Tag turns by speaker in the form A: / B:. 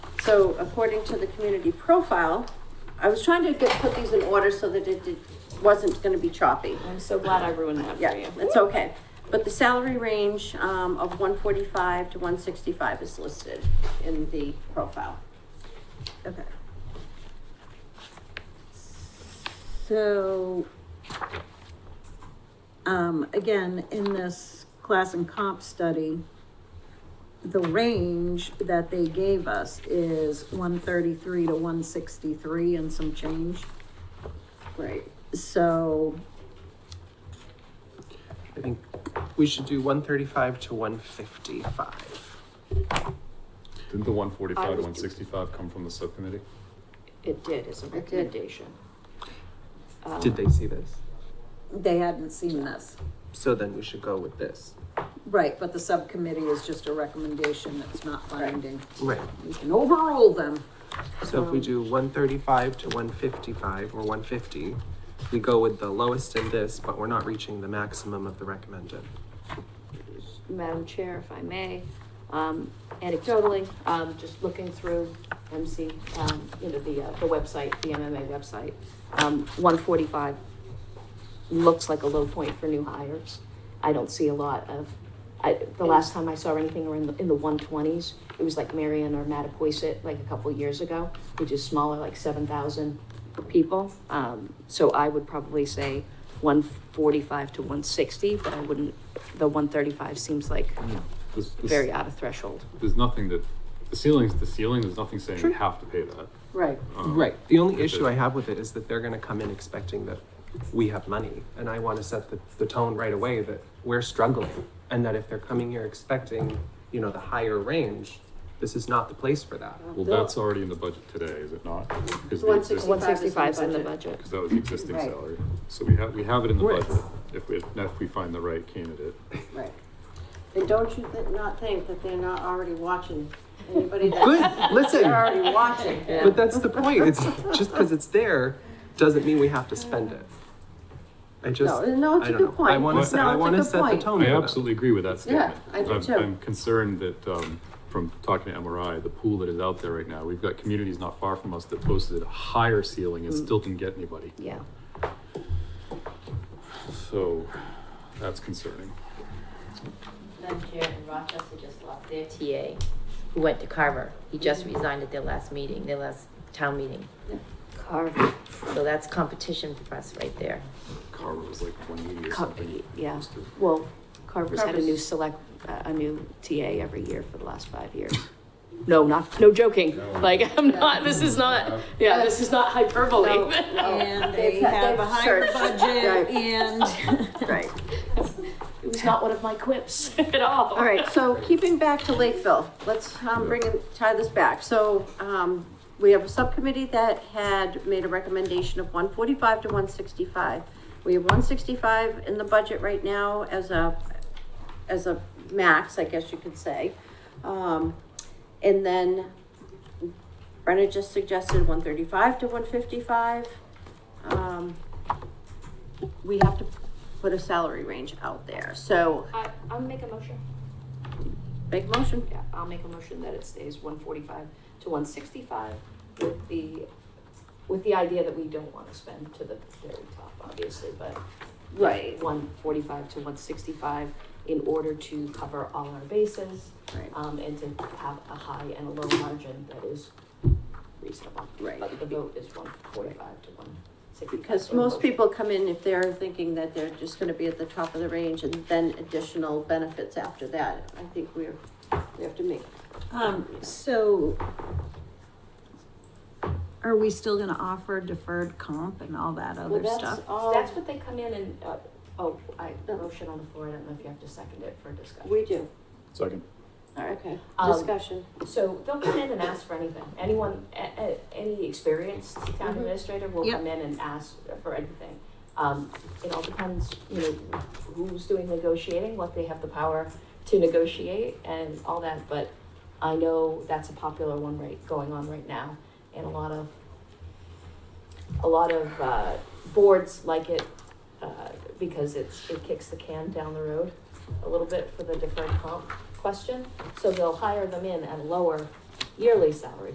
A: So according to the community profile, I was trying to get, put these in order so that it did, wasn't gonna be choppy.
B: I'm so glad I ruined that for
A: Yeah,
B: you.
A: it's okay. But the salary range, um, of one forty-five to one sixty-five is listed in the profile.
C: Okay. So, um, again, in this class and comp study, the range that they gave us is one thirty-three to one sixty-three and some change.
A: Right.
C: So,
D: I think we should do 135 to 155.
E: Didn't the one
B: I
E: forty-five,
B: was-
E: one sixty-five come from the subcommittee?
B: It did as a
A: did.
B: recommendation. Um,
D: Did they see this?
C: they hadn't seen this.
D: So then we should go with this.
C: Right, but the subcommittee is just a recommendation, it's not binding.
D: Right.
C: We can overrule them.
D: So if we do 135 to 155 or 150, we go with the lowest in this, but we're not reaching the maximum of the recommended.
B: Madam Chair, if I may, um, anecdotally, um, just looking through MC, um, you know, the, uh, the website, the MMA website, um, one forty-five looks like a low point for new hires. I don't see a lot of, I, the last time I saw anything were in the, in the one twenties. It was like Marion or Mattapoisett, like a couple years ago, which is smaller, like seven thousand people. Um, so I would probably say one forty-five to one sixty, but I wouldn't, the one thirty-five seems like
E: This- this-
B: very out of threshold.
E: There's nothing that, the ceiling's the ceiling, there's nothing saying we have to pay that.
A: Right.
E: Um,
D: Right. The only
E: if
D: issue I
E: it-
D: have with Oh. it is that they're going to come in expecting that we have money. And I want to set the, the tone right away that we're struggling. And that if they're coming here expecting, you know, the higher range, this is not the place for that.
E: Well, that's already in the budget today, is it not? Is the
A: One
E: existing-
A: 165 is in
B: One
A: the
B: sixty-five's in the
A: budget.
B: budget.
E: Cause that was the existing
A: Right.
E: salary. So we have, we have it in the
D: Right.
E: budget, if we, if we find the right candidate.
A: Right. And don't you thi- not think that they're not already watching anybody that
D: Good. Listen.
A: they're already watching.
D: But that's the point. It's just because it's there doesn't mean we have to spend it. I just,
A: No, no, it's
D: I
A: a
D: don't
A: good
D: know. I
A: point.
D: want
A: No,
D: to set,
A: it's
D: I
A: a
D: want to
A: good
D: set the
A: point.
D: tone.
E: I
D: for them.
E: absolutely agree with that
A: Oh, Yeah,
E: statement.
A: I do
E: I'm-
A: too.
E: I'm concerned that, um, from talking to MRI, the pool that is out there right now, we've got communities not far from us that posted a higher ceiling
A: Mm.
E: and still didn't get anybody.
B: Yeah,
E: So, that's concerning.
F: Madam Chair, in Rochester just lost their TA, who went to Carver. He just resigned at their last meeting, their last town meeting.
B: Carver,
F: So that's competition for us right there.
E: Carver was like one eighty or
B: Car-
E: something.
B: yeah.
E: Just a-
B: Well, Carver's had a new
A: Carver's-
B: select, uh, a new TA every year for the last five years. No, not, no joking, like, I'm not, this is not, yeah, this is not
A: No,
B: hyperbole.
A: no,
C: And
A: they've
C: they
A: had-
C: have a
A: they've
C: higher
A: searched.
C: budget and.
A: Right.
B: It was not one of my quips at all.
A: All right, so keeping back to Lakeville, let's, um, bring in, tie this back. So, um, we have a subcommittee that had made a recommendation of one forty-five to one sixty-five. We have one sixty-five in the budget right now as a, as a max, I guess you could say. Um, and then Brenna just suggested one thirty-five to one fifty-five. Um, we have to put a salary range out there, so
B: I, I'll make a motion.
A: big motion.
B: Yeah, I'll make a motion that it stays one forty-five to one sixty-five with the, with the idea that we don't want to spend to the very top, obviously, but
A: Right.
B: one forty-five to one sixty-five in order to cover all our bases,
A: Right.
B: um, and to have a high and a low margin that is reasonable.
A: Right.
B: But the vote is one forty-five to one sixty-five.
A: Because most people come in if they're thinking that they're just gonna be at the top of the range and then additional benefits after that. I think we're, we have to make,
C: Um, so are we still gonna offer deferred comp and all that
B: Well,
C: other
B: that's,
C: stuff?
A: all-
B: that's what they come in and, uh, oh, I, the motion on the floor, I don't know if you have to second it for discussion.
A: we do.
E: Second.
A: Okay.
B: Um,
A: Discussion.
B: So they'll come in and ask for anything. Anyone, a, a, any experienced
A: Mhm.
B: town administrator will
C: Yep.
B: come in and ask for anything. Um, it all depends, you know, who's doing negotiating, what they have the power to negotiate and all that, but I know that's a popular one right, going on right now, and a lot of, a lot of, uh, boards like it, uh, because it's, it kicks the can down the road a little bit for the deferred comp question, so they'll hire them in at a lower yearly salary,